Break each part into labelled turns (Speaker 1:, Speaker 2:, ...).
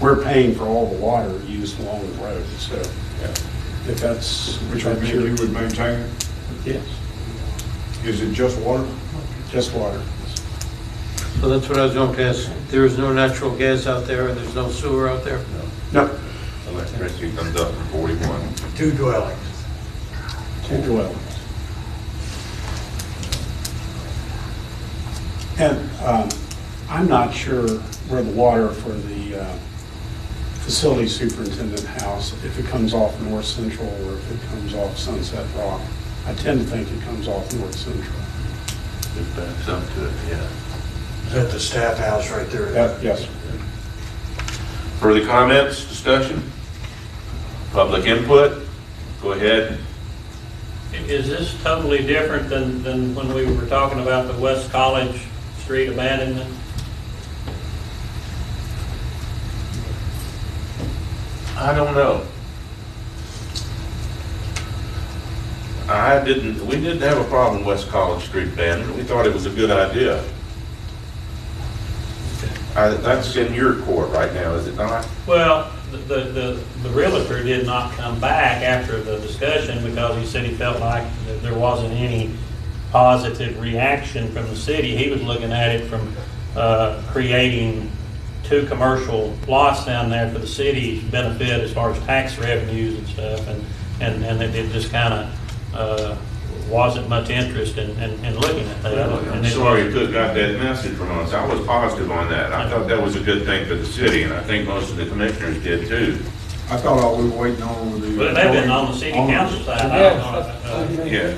Speaker 1: we're paying for all the water used along the road, so if that's.
Speaker 2: Which would mean you would maintain it?
Speaker 1: Yes,
Speaker 2: Is it just water?
Speaker 1: just water.
Speaker 3: So that's what I was going to ask. There is no natural gas out there, and there's no sewer out there?
Speaker 1: No,
Speaker 4: Electricity comes up from 41.
Speaker 5: two dwellings.
Speaker 1: two dwellings. And um, I'm not sure where the water for the uh, facility superintendent house, if it comes off North Central or if it comes off Sunset Rock. I tend to think it comes off North Central.
Speaker 4: It backs up to it, yeah.
Speaker 5: Is that the staff house right there?
Speaker 1: That- Uh, Yes,
Speaker 4: Further comments, discussion? Public input? Go ahead.
Speaker 6: Is this totally different than, than when we were talking about the West College Street abandonment?
Speaker 4: I don't know. I didn't, we didn't have a problem with West College Street banning. We thought it was a good idea. I- That's in your court right now, is it not?
Speaker 6: Well, the, the, the realtor did not come back after the discussion because he said he felt like that there wasn't any positive reaction from the city. He was looking at it from, uh, creating two commercial lots down there for the city's benefit as far as tax revenues and stuff. And, and, and it- it just kind of, uh, wasn't much interest in, in, in looking at that.
Speaker 4: I'm
Speaker 6: And it
Speaker 4: sorry you
Speaker 6: wasn't-
Speaker 4: could got that message from us. I was positive on that. I thought that was a good thing for the city, and I think most of the commissioners did too.
Speaker 2: I thought all we were waiting on was the.
Speaker 6: But they've been on the city council side, I don't know.
Speaker 4: Yeah.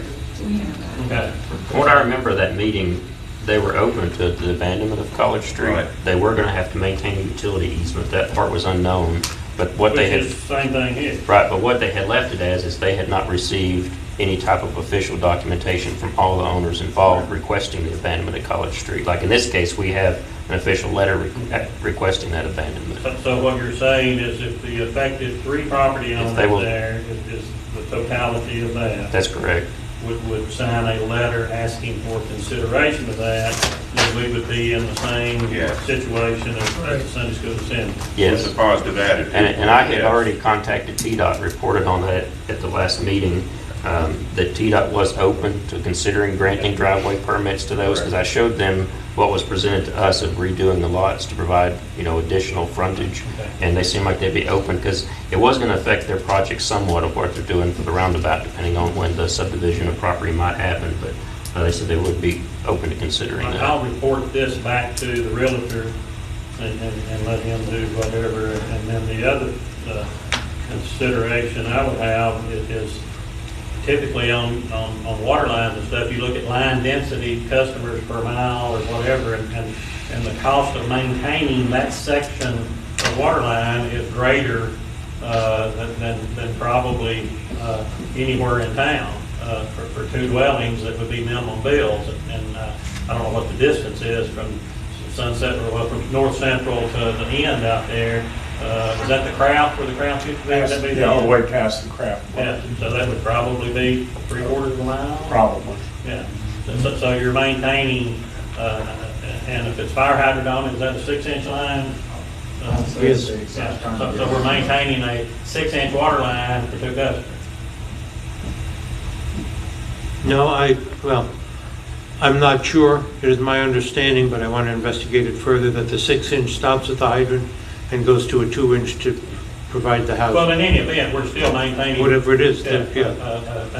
Speaker 6: Okay.
Speaker 7: From what I remember of that meeting, they were open to the abandonment of College Street.
Speaker 4: Right.
Speaker 7: They were going to have to maintain a utility easement. That part was unknown. But what
Speaker 6: Which
Speaker 7: they
Speaker 6: is
Speaker 7: had,
Speaker 6: the same thing here.
Speaker 7: right, but what they had left it as is they had not received any type of official documentation from all the owners involved requesting the abandonment of College Street. Like in this case, we have an official letter re- requesting that abandonment.
Speaker 6: So- So what you're saying is if the affected three property owners
Speaker 7: they will-
Speaker 6: there, is is the totality of that,
Speaker 7: That's correct.
Speaker 6: would, would sign a letter asking for consideration of that, then we would be in the same
Speaker 4: Yes.
Speaker 6: situation as as the Sunday school assembly.
Speaker 7: Yes.
Speaker 4: It's a positive attitude.
Speaker 7: And, and I had
Speaker 4: Yeah.
Speaker 7: already contacted TDOT, reported on that at the last meeting, um, that TDOT was open to considering granting driveway permits to those, because I showed them what was presented to us of redoing the lots to provide, you know, additional frontage, and they seemed like they'd be open, because it was going to affect their project somewhat of what they're doing for the roundabout, depending on when the subdivision of property might happen, but uh, they said they would be open to considering
Speaker 6: And
Speaker 7: that.
Speaker 6: I'll report this back to the realtor and, and and let him do whatever. And then the other uh, consideration I would have is- is typically on, on, on water lines and stuff, you look at line density, customers per mile or whatever, and, and, and the cost of maintaining that section of water line is greater uh, than- than, than probably uh, anywhere in town uh, for, for two dwellings that would be minimum bills. And uh, I don't know what the distance is from Sunset, or well, from North Central to the end out there. Uh, Is that the Kraft, where the Kraft used to be? Would that be the
Speaker 1: yeah, all the
Speaker 6: end?
Speaker 1: way past the craft,
Speaker 6: Yeah, so that would probably be three quarters of a mile?
Speaker 1: probably.
Speaker 6: Yeah, So- so, so you're maintaining, uh, and if it's fire hydrant on it, is that a six inch line? Uh,
Speaker 3: Yes.
Speaker 6: yeah, So, so we're maintaining a six inch water line for two customers.
Speaker 3: No, I, well, I'm not sure. It is my understanding, but I want to investigate it further, that the six-inch stops at the hydrant and goes to a two-inch to provide the
Speaker 6: Well,
Speaker 3: house,
Speaker 6: in any event, we're still maintaining.
Speaker 3: whatever it is,
Speaker 6: Yeah,
Speaker 3: that-
Speaker 6: A,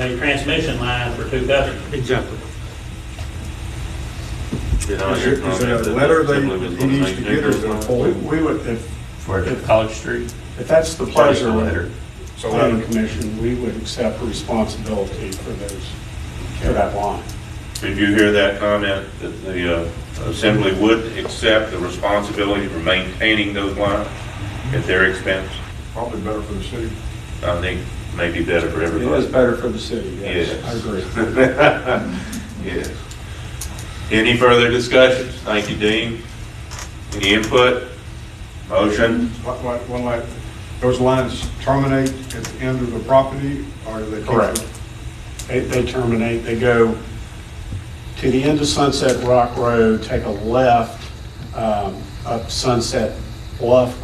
Speaker 3: yeah,
Speaker 6: a- a transmission line for two customers.
Speaker 3: exactly.
Speaker 4: You know,
Speaker 2: Is it- is it a letter they, he needs to get or is it a
Speaker 1: We
Speaker 2: form?
Speaker 1: we would, if,
Speaker 7: For College Street?
Speaker 1: if that's the pleasure of the
Speaker 2: So
Speaker 1: planning
Speaker 2: that-
Speaker 1: commission, we would accept responsibility for those, for that line.
Speaker 4: Did you hear that comment, that the uh, assembly would accept the responsibility for maintaining those lines at their expense?
Speaker 2: probably better for the city.
Speaker 4: I think maybe better for
Speaker 1: It is
Speaker 4: everybody.
Speaker 1: better for the city, yes,
Speaker 4: Yes.
Speaker 1: I agree.
Speaker 4: Yes. Any further discussions? Thank you, Dean. Any input? Motion?
Speaker 2: Like, like, one like, those lines terminate at the end of the property or do they? keep
Speaker 1: Correct.
Speaker 2: them?
Speaker 1: They, they terminate, they go to the end of Sunset Rock Road, take a left, um, up Sunset Bluff